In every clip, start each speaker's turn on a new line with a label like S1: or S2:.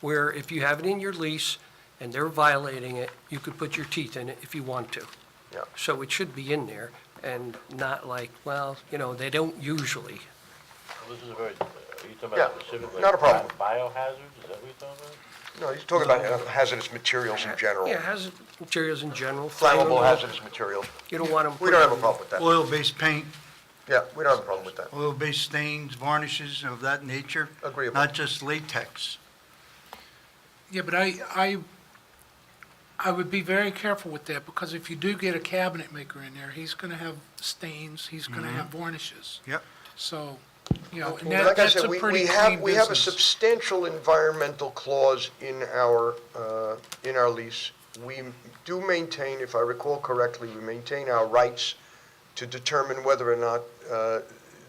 S1: where if you have it in your lease and they're violating it, you could put your teeth in it if you want to.
S2: Yeah.
S1: So it should be in there and not like, well, you know, they don't usually.
S3: This is a very, are you talking
S2: Yeah,
S3: about specifically?
S2: not a problem.
S3: Biohazards, is that what you're talking about?
S2: No, he's talking about uh, hazardous materials in general,
S1: Yeah, hazardous materials in general.
S2: flammable
S1: hazards.
S2: hazardous materials.
S1: You don't want them.
S2: We don't have a problem with that.
S4: Oil-based paint,
S2: Yeah, we don't have a problem with that.
S4: oil-based stains, varnishes of that nature.
S2: Agreeable.
S4: Not just latex.
S5: Yeah, but I, I, I would be very careful with that, because if you do get a cabinet maker in there, he's gonna have stains, he's gonna have varnishes.
S4: Yep.
S5: So, you know, and
S2: Well,
S5: that,
S2: Like I
S5: that's
S2: said,
S5: a
S2: we,
S5: pretty
S2: we
S5: clean
S2: have,
S5: business.
S2: we have a substantial environmental clause in our, uh, in our lease. We do maintain, if I recall correctly, we maintain our rights to determine whether or not uh,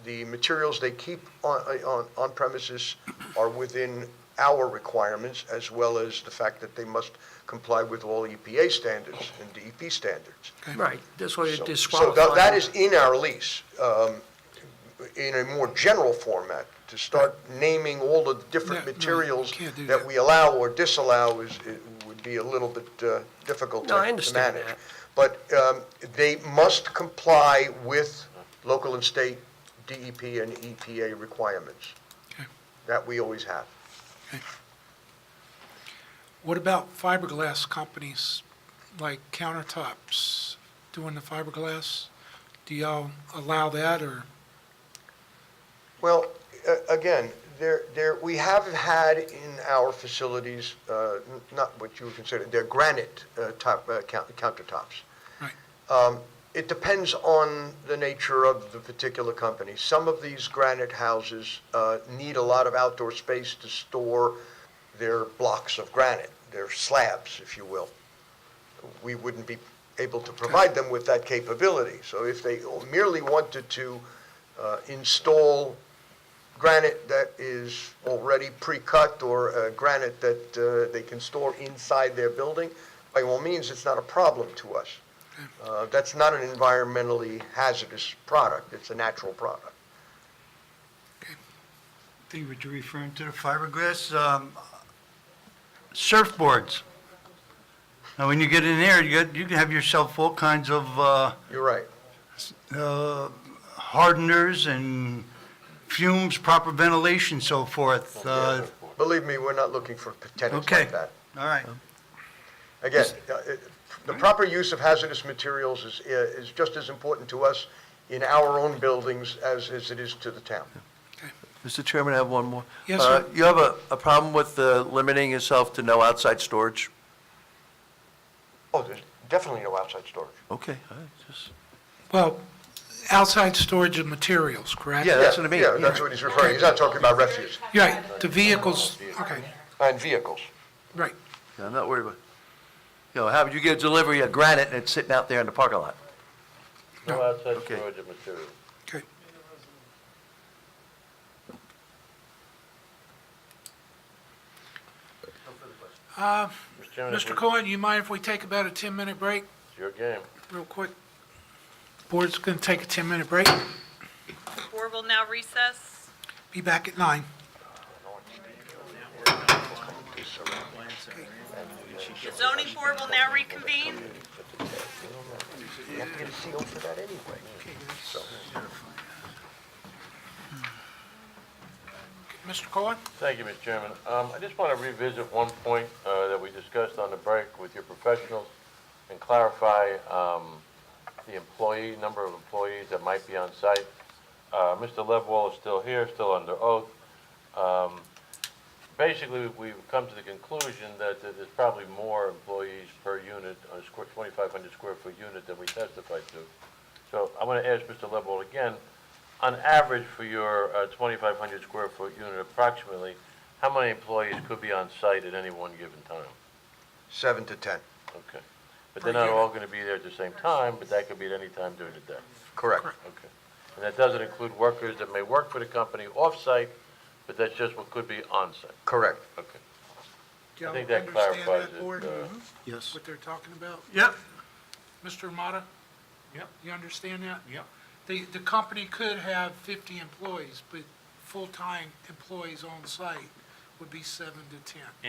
S2: the materials they keep on, on, on premises are within our requirements, as well as the fact that they must comply with all EPA standards and DEP standards.
S1: Right, that's why you
S2: So-
S1: disqualify.
S2: So tha- that
S1: them.
S2: is in our lease, um, in a more general format, to start naming all of the different
S5: No, no, you
S2: materials
S5: can't do
S2: that
S5: that.
S2: we allow or disallow is, it would be a little bit uh, difficult to
S1: No, I
S2: to
S1: understand
S2: manage.
S1: that.
S2: But um, they must comply with local and state DEP and EPA requirements.
S5: Okay.
S2: That we always have.
S5: What about fiberglass companies, like countertops, doing the fiberglass? Do y'all allow that, or?
S2: Well, a- again, there, there, we have had in our facilities, uh, n- not what you would consider, they're granite uh, top, uh, count- countertops.
S5: Right.
S2: Um, It depends on the nature of the particular company. Some of these granite houses uh, need a lot of outdoor space to store their blocks of granite, their slabs, if you will. We wouldn't be able to provide them with that capability. So if they merely wanted to uh, install granite that is already pre-cut or uh, granite that uh, they can store inside their building, by all means, it's not a problem to us. Uh, That's not an environmentally hazardous product, it's a natural product.
S4: I think what you're referring to, the fiberglass, um, surfboards. Now, when you get in there, you got, you can have yourself all kinds of, uh,
S2: You're right.
S4: uh, hardeners and fumes, proper ventilation, so forth. Uh,
S2: Believe me, we're not looking for tenants
S4: Okay.
S2: like that.
S4: All right.
S2: Again, uh, it- the proper use of hazardous materials is, is just as important to us in our own buildings as, as it is to the town.
S6: Mr. Chairman, I have one more.
S5: Yes,
S6: Uh,
S5: sir.
S6: You have a, a problem with uh, limiting yourself to no outside storage?
S2: Oh, there's definitely no outside storage.
S6: Okay, all right, just-
S5: Well, outside storage of materials, correct?
S6: Yeah, that's what I mean.
S2: Yeah, that's what he's referring, he's not talking about refuse
S5: Right, the vehicles, okay,
S2: and vehicles.
S5: right.
S6: yeah, I'm not worried about, you know, how would you get a delivery of granite and it's sitting out there in the parking lot?
S5: No.
S3: No outside
S6: Okay.
S3: storage of material.
S5: Okay. Uh,
S3: Mr. Chairman, if
S5: Mr.
S3: we-
S5: Cohen, you mind if we take about a 10-minute break,
S3: It's your game.
S5: real quick? Board's going to take a 10-minute break,
S7: Board will now recess.
S5: be back at nine.
S7: The zoning board will now reconvene.
S2: You have to get a CO for that anyway.
S5: Mr. Cohen?
S3: Thank you, Mr. Chairman. Um, I just want to revisit one point uh, that we discussed on the break with your professionals and clarify um, the employee, number of employees that might be on site. Uh, Mr. Levenwall is still here, still under oath. Um, Basically, we've- we've come to the conclusion that that there's probably more employees per unit, on a square, 2,500 square foot unit than we testified to. So I want to ask Mr. Levenwall again, on average for your uh, 2,500 square foot unit approximately, how many employees could be on site at any one given time?
S2: Seven to 10,
S3: Okay. But they're not all going to be there at the same time, but that could be at any time during the day.
S2: correct.
S3: Okay. And that doesn't include workers that may work for the company off-site, but that's just what could be on-site.
S2: Correct.
S3: Okay.
S5: Do
S3: I
S5: y'all
S3: think that
S5: understand
S3: clarifies
S5: that,
S3: it,
S5: Board, Mm-hmm.
S3: uh,
S4: Yes.
S5: What they're talking about?
S4: Yep.
S5: Mr. Amata?
S8: Yep.
S5: You understand that?
S8: Yep.
S5: The, the company could have 50 employees, but full-time employees on site would be seven to 10.